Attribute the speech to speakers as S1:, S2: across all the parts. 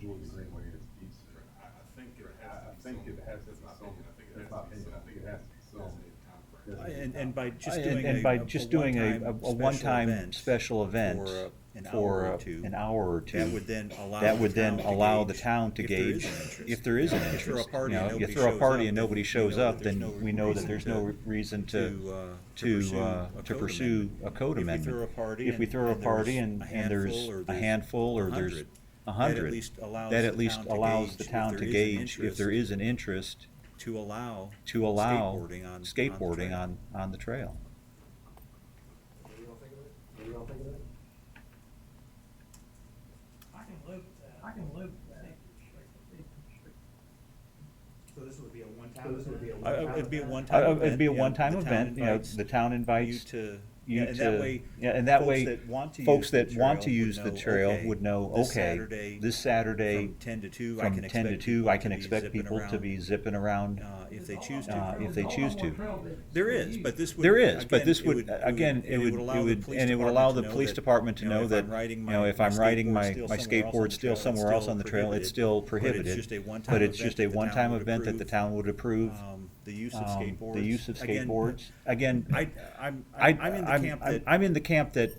S1: Jordan Greenway is decent.
S2: I, I think it
S1: I,
S2: has to
S1: I
S2: be.
S1: think it
S2: sold.
S1: has to be
S2: That's my
S1: sold.
S2: opinion. I think it
S1: That's
S2: has
S1: my
S2: to be sold.
S1: opinion. I think it has to be sold.
S2: Designated timeframe.
S1: Doesn't-
S3: And, and by just
S4: And-
S3: doing a.
S4: And by
S3: a-
S4: just doing a, a a
S3: special
S4: one-time
S3: event
S4: special event
S3: for a- an
S4: for
S3: hour or
S4: a-
S3: two,
S4: an hour or two.
S3: That would then allow.
S4: That would
S3: the
S4: then
S3: town to
S4: allow the
S3: gauge
S4: town to
S3: if there is
S4: gauge,
S3: an interest.
S4: if there is an
S3: You know,
S4: interest.
S3: You throw a party
S4: You know,
S3: and nobody
S4: You throw a
S3: shows
S4: party
S3: up,
S4: and nobody
S3: we
S4: shows
S3: know that
S4: up,
S3: there's
S4: then
S3: no
S4: we know that
S3: reason
S4: there's no
S3: to-
S4: re- reason
S3: to, uh,
S4: to,
S3: to
S4: to, uh,
S3: pursue a
S4: to
S3: code
S4: pursue
S3: amendment.
S4: a code
S3: If we
S4: amendment.
S3: throw a party
S4: If we
S3: and-
S4: throw a
S3: and there's
S4: party and,
S3: a
S4: and there's
S3: handful or
S4: a
S3: there's
S4: handful or there's
S3: 100,
S4: a
S3: that at
S4: hundred.
S3: least allows
S4: that
S3: the
S4: at least
S3: town to
S4: allows
S3: gauge
S4: the
S3: if
S4: town
S3: there
S4: to
S3: is an
S4: gauge if there
S3: interest.
S4: is an interest
S3: To allow.
S4: to allow
S3: Skateboarding on- on. the
S4: skateboarding
S3: trail.
S4: on, on the trail.
S5: What do y'all think of it? What do y'all think of it?
S6: I can live with that. I can live with that.
S5: So this would be a one-time? So this would be a
S3: I- I-
S5: one-time?
S4: Uh,
S3: It'd be a
S5: event?
S3: one-time
S4: Uh,
S3: event.
S4: It'd be a
S3: you know,
S4: one-time
S3: the town
S4: event, you know,
S3: invites
S4: the town
S3: You
S4: invites.
S3: to.
S4: you
S3: yeah, and that
S4: to-
S3: way,
S4: yeah, and that
S3: folks
S4: way,
S3: that want to
S4: folks
S3: use the
S4: that want to
S3: trail would
S4: use the
S3: know,
S4: trail
S3: okay,
S4: would know,
S3: this
S4: okay,
S3: Saturday
S4: this Saturday.
S3: from 10 to 2, I
S4: from
S3: can
S4: 10 to
S3: expect
S4: 2,
S3: people
S4: I
S3: to
S4: can
S3: be
S4: expect
S3: zipping
S4: people to
S3: around.
S4: be zipping around.
S3: Uh, if they choose to.
S4: Uh, if they choose to.
S3: There is, but this would.
S4: There is, but
S3: again,
S4: this
S3: it
S4: would, again, it would,
S3: allow
S4: it
S3: the
S4: would,
S3: police
S4: and it would allow the
S3: know
S4: police
S3: that,
S4: department to
S3: you
S4: know
S3: if
S4: that,
S3: I'm
S4: you
S3: riding my-
S4: know, if I'm riding my, my skateboard
S3: skateboard's
S4: still somewhere else on the trail, it's still prohibited.
S3: But it's just a one-time
S4: But it's
S3: event
S4: just
S3: that
S4: a
S3: the town
S4: one-time
S3: would
S4: event that the
S3: approve.
S4: town would approve.
S3: Um, The use of
S4: um,
S3: skateboards.
S4: The use of
S3: Again,
S4: skateboards. Again,
S3: I, I'm,
S4: I,
S3: I'm in the camp that
S4: I'm in the camp that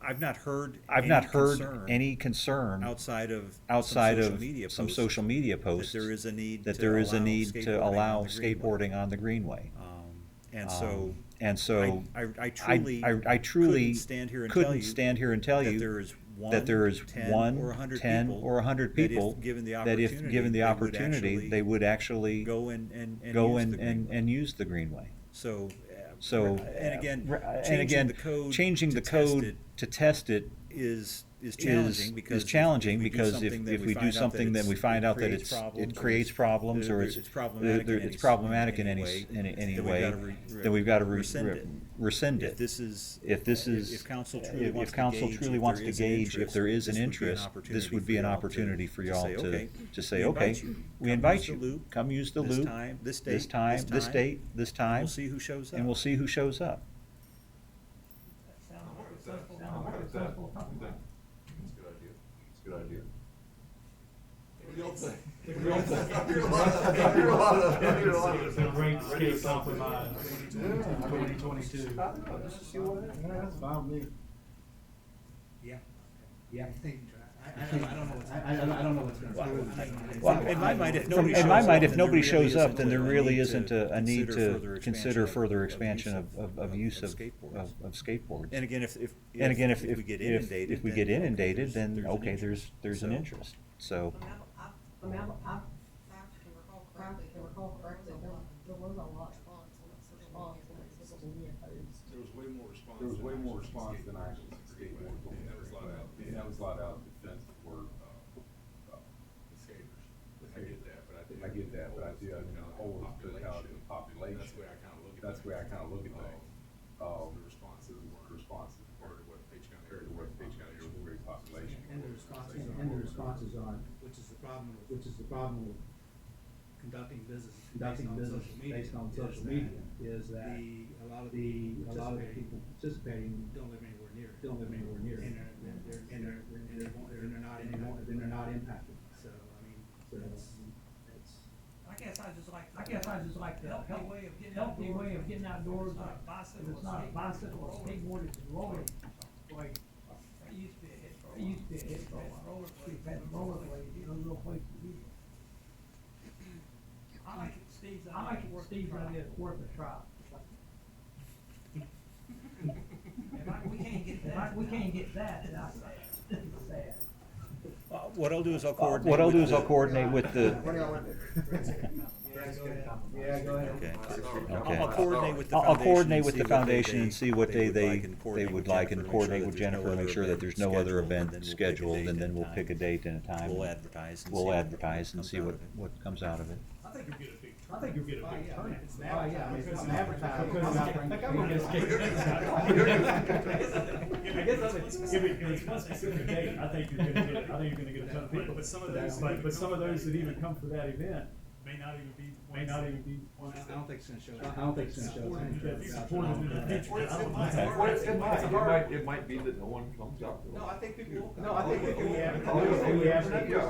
S3: I've not heard.
S4: I've
S3: any
S4: not heard
S3: concern
S4: any concern
S3: Outside of. some
S4: outside
S3: social
S4: of
S3: media
S4: some
S3: posts
S4: social media posts.
S3: That there is a need.
S4: that
S3: to
S4: there is a
S3: allow
S4: need
S3: skateboarding
S4: to
S3: on
S4: allow
S3: the greenway.
S4: skateboarding on the greenway.
S3: Um, And so.
S4: Um, And so.
S3: I, I- I truly.
S4: I- I truly
S3: couldn't stand here and tell
S4: couldn't
S3: you
S4: stand here and tell you
S3: That there is one.
S4: that there is
S3: 10,
S4: one,
S3: Or a hundred
S4: 10,
S3: people.
S4: or a hundred
S3: that if
S4: people.
S3: Given the
S4: that
S3: opportunity.
S4: if given the
S3: they would
S4: opportunity,
S3: actually
S4: they would actually
S3: Go and, and. and
S4: go
S3: use
S4: and,
S3: the
S4: and,
S3: greenway.
S4: and use the greenway.
S3: So. uh,
S4: So.
S3: And again,
S4: uh, and
S3: changing
S4: again,
S3: the code.
S4: Changing
S3: to
S4: the
S3: test
S4: code
S3: it
S4: to test it
S3: Is, is
S4: is,
S3: challenging because.
S4: is
S3: if- if
S4: challenging
S3: we do
S4: because if,
S3: something, then
S4: if we do
S3: find out that
S4: something, then
S3: it's-
S4: we find out that
S3: creates
S4: it's,
S3: problems
S4: it
S3: or
S4: creates
S3: it's-
S4: problems or
S3: problematic
S4: it's.
S3: in
S4: there-
S3: any
S4: It's
S3: s-
S4: problematic in any,
S3: way,
S4: s- in, in any
S3: then we've
S4: way,
S3: gotta re-
S4: then we've gotta re-
S3: rescind
S4: re-
S3: it.
S4: rescind
S3: If
S4: it.
S3: this is.
S4: If this is.
S3: If council
S4: if-
S3: truly wants
S4: If
S3: to
S4: council
S3: gauge if
S4: truly
S3: there
S4: wants to
S3: is an
S4: gauge if
S3: interest,
S4: there is an
S3: this would be an
S4: interest, this
S3: opportunity
S4: would
S3: for
S4: be an
S3: y'all to-
S4: opportunity for
S3: to
S4: y'all
S3: say,
S4: to,
S3: okay,
S4: to say,
S3: we invite
S4: okay,
S3: you.
S4: we
S3: Come
S4: invite
S3: use the
S4: you.
S3: loop.
S4: Come use the
S3: This
S4: loop.
S3: time, this date,
S4: This
S3: this
S4: time, this
S3: time.
S4: date, this time.
S3: We'll see who shows up.
S4: And we'll see who shows up.
S6: Sounds like a sensible plan.
S1: I'm not exactly, I think it's a good idea, it's a good idea.
S7: It's a great escape compromise. Twenty twenty-two.
S5: I don't know, let's just see what happens.
S7: That's fine with me.
S5: Yeah. Yeah. I, I, I don't know what's. I, I don't- I don't know what's gonna. happen.
S4: Well,
S3: In my mind, if
S4: From-
S3: nobody
S4: In my
S3: shows
S4: mind,
S3: up,
S4: if
S3: then there really
S4: nobody shows up, then
S3: isn't
S4: there
S3: a
S4: really
S3: need
S4: isn't
S3: to
S4: a, a need
S3: consider further
S4: to
S3: expansion
S4: consider
S3: of-
S4: further
S3: of
S4: expansion
S3: use
S4: of, of, of use of,
S3: skateboards.
S4: of of skateboards.
S3: And again, if, if.
S4: And again, if,
S3: we
S4: if,
S3: get
S4: if,
S3: inundated,
S4: if we
S3: then,
S4: get
S3: okay,
S4: inundated,
S3: there's-
S4: then,
S3: there's an
S4: okay,
S3: interest.
S4: there's, there's an
S3: So-
S4: interest, so.
S8: I, I mean, I, I, I recall correctly, there was a lot of response on social media posts.
S2: There was way more response.
S1: There was
S2: than
S1: way more
S2: actually
S1: response than I
S2: skateboarding.
S1: skateboard.
S2: Yeah, that was a lot out.
S1: Yeah, that was a lot out defensive word. uh,
S2: The skaters. I get that, but I do.
S1: I get that, but I do, I mean, the whole totality of the population.
S2: That's where I kinda look at
S1: That's
S2: things.
S1: where I kinda look at
S2: Um,
S1: things.
S2: so
S1: Um,
S2: the responses were-
S1: Responses
S2: compared to what Page County-
S1: compared to what Page County is with population.
S5: And the responses.
S7: And the responses are,
S5: Which is the problem with
S7: which is the problem with
S5: conducting business
S7: conducting business based on social media, is that
S5: a lot
S7: the, a lot of the people participating
S5: don't live anywhere near it.
S7: don't live anywhere near it.
S5: And they're, they're, and they're, and they won't, and they're not
S7: And they won't-
S5: impacted.
S7: then they're not impacted.
S5: So, I mean,
S7: So
S5: that's,
S7: that's.
S6: I guess I just like,
S8: I guess I just like
S6: the
S8: the
S6: healthy
S8: help-
S6: way of getting
S8: healthy
S6: outdoors.
S8: way of getting outdoors,
S6: It's not a
S8: if
S6: bicycle,
S8: it's not a bicycle or
S6: skateboard,
S8: skateboard, it's roller. Like,
S6: It used to be a hit for a
S8: it
S6: while.
S8: used to be a hit for a while,
S6: Rollerblade.
S8: we've had rollerblades, you know, little places to do it.
S6: I like it, Steve's.
S8: I like it, Steve's idea is worth a try.
S6: If I, we can't get
S8: If I-
S6: that.
S8: we can't get that, then I say, sad.
S3: Uh, What I'll do is I'll coordinate.
S4: What I'll
S3: with
S4: do is
S3: the-
S4: I'll coordinate with the,
S5: What do y'all want to do? Yeah, go ahead. Yeah, go ahead.
S3: Okay. I'll-
S4: Okay.
S3: I'll coordinate with the
S4: I'll
S3: foundation.
S4: I'll coordinate
S3: and
S4: with
S3: see
S4: the
S3: what they-
S4: foundation and see what they,
S3: like, and
S4: they, they
S3: coordinate
S4: would
S3: with
S4: like
S3: Jennifer,
S4: and
S3: make sure
S4: coordinate
S3: that
S4: with
S3: there's no
S4: Jennifer, make
S3: other
S4: sure that
S3: event
S4: there's no other
S3: scheduled, and
S4: event
S3: then we'll pick a
S4: scheduled,
S3: date
S4: and
S3: and time.
S4: then we'll pick a date and a time.
S3: We'll
S4: and
S3: advertise. and see
S4: We'll
S3: what
S4: advertise and
S3: comes
S4: see
S3: out
S4: what,
S3: of it.
S4: what comes out of it.
S2: I think you'll get a big turn.
S5: I think you'll get a big turnout. It's advertising.
S7: Because it's not-
S5: Like, I'm gonna
S7: because
S5: skate.
S7: I guess I think, if it, if it's one specific date, I think you're gonna get, I think you're gonna get a ton of people.
S2: But some of those-
S7: But, but some of those that even come for that event
S2: May not even be.
S7: may not even be.
S5: I don't think it's gonna show.
S7: I don't think it's gonna show up.
S5: Supported.
S7: It's supported in the future.
S5: Or it's in my-
S7: Okay.
S5: or it's in my-
S1: It might, it might be that no one comes out.
S5: Oh,
S2: No, I think people will.
S5: No, I think we can.
S7: Oh, yeah.